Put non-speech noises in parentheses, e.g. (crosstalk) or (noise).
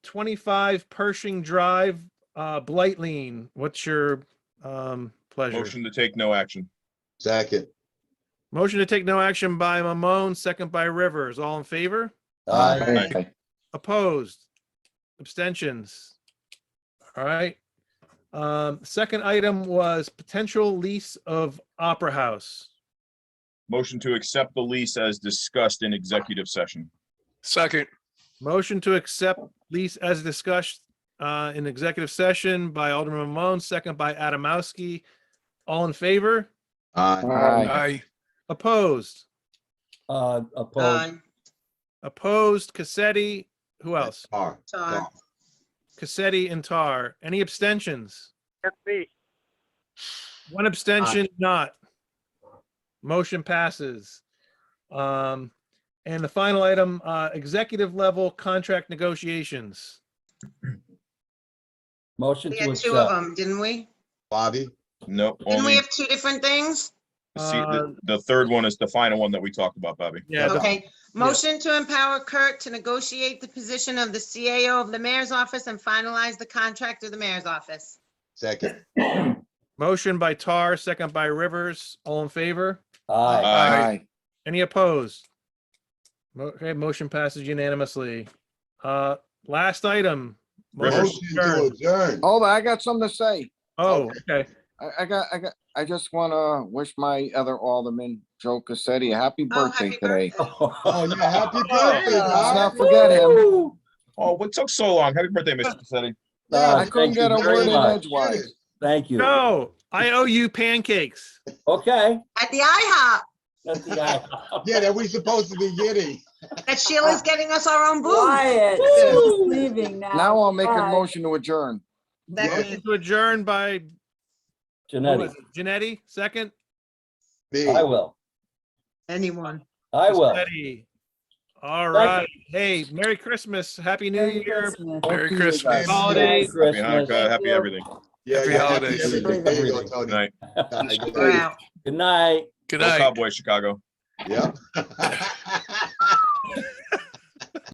25 Pershing Drive, uh, Blightline. What's your, um, pleasure? Motion to take no action. Second. Motion to take no action by Mamone, second by Rivers. All in favor? Aye. Opposed? Abstentions? All right. Um, second item was potential lease of Opera House. Motion to accept the lease as discussed in executive session. Second, Motion to accept lease as discussed uh, in executive session by Alderman Mamone, second by Adamowski. All in favor? Aye. aye, Opposed? Uh, opposed, Aye. Opposed, Cassetti, who else? Tar. Tar. Cassetti and Tar. Any abstentions? That's me. One abstention, not. Motion passes. Um, and the final item, uh, executive level contract negotiations. motion We to had two of accept. them, didn't we? Bobby, No, Didn't we only, have uh, two different things? see, the, the third one is the final one that we talked about, Bobby. Um, Yeah, the- Okay, motion to empower Kurt to negotiate the position of the CAO of the mayor's office and finalize the contract of the mayor's office. second. motion by Tar, second by Rivers. All in favor? Aye, Aye. Any opposed? Mo- Okay, motion passes unanimously. Uh, last item. Rivers. Motion to adjourn. Hold on, Oh, I got something to say. Oh, okay. I, I got, I got, I just wanna wish my other alderman, Joe Cassetti, a happy Oh, birthday happy today. (laughs) Oh, yeah, happy birthday, Let's Bob. not forget him. Oh, what took so long? Happy birthday, Mr. Cassetti. Uh, I couldn't thank you get a very word in much. edgewise. Thank you. No, I owe you pancakes. Okay. At the IHOP, that's the guy. (laughs) Yeah, that we supposed to be getting. that Sheila's getting us our own booth. Quiet, She's leaving now. Now I'll make a Bye. motion to adjourn. That Yeah. we- To adjourn by Janetti, Janetti, second. Me. I will, Anyone. I will. Janetti. All Thank you. right. Hey, Merry Christmas, Happy New Merry Year. Christmas. Both Merry of you Christmas. guys. Holidays. Merry Happy Hanukkah, Christmas. happy everything. Yeah, Happy yeah, holidays. everything. There you go, Tony. Good night. Good (laughs) We're night. out. (laughs) Good night. good Go night. Cowboys, Chicago. Yep. (laughs)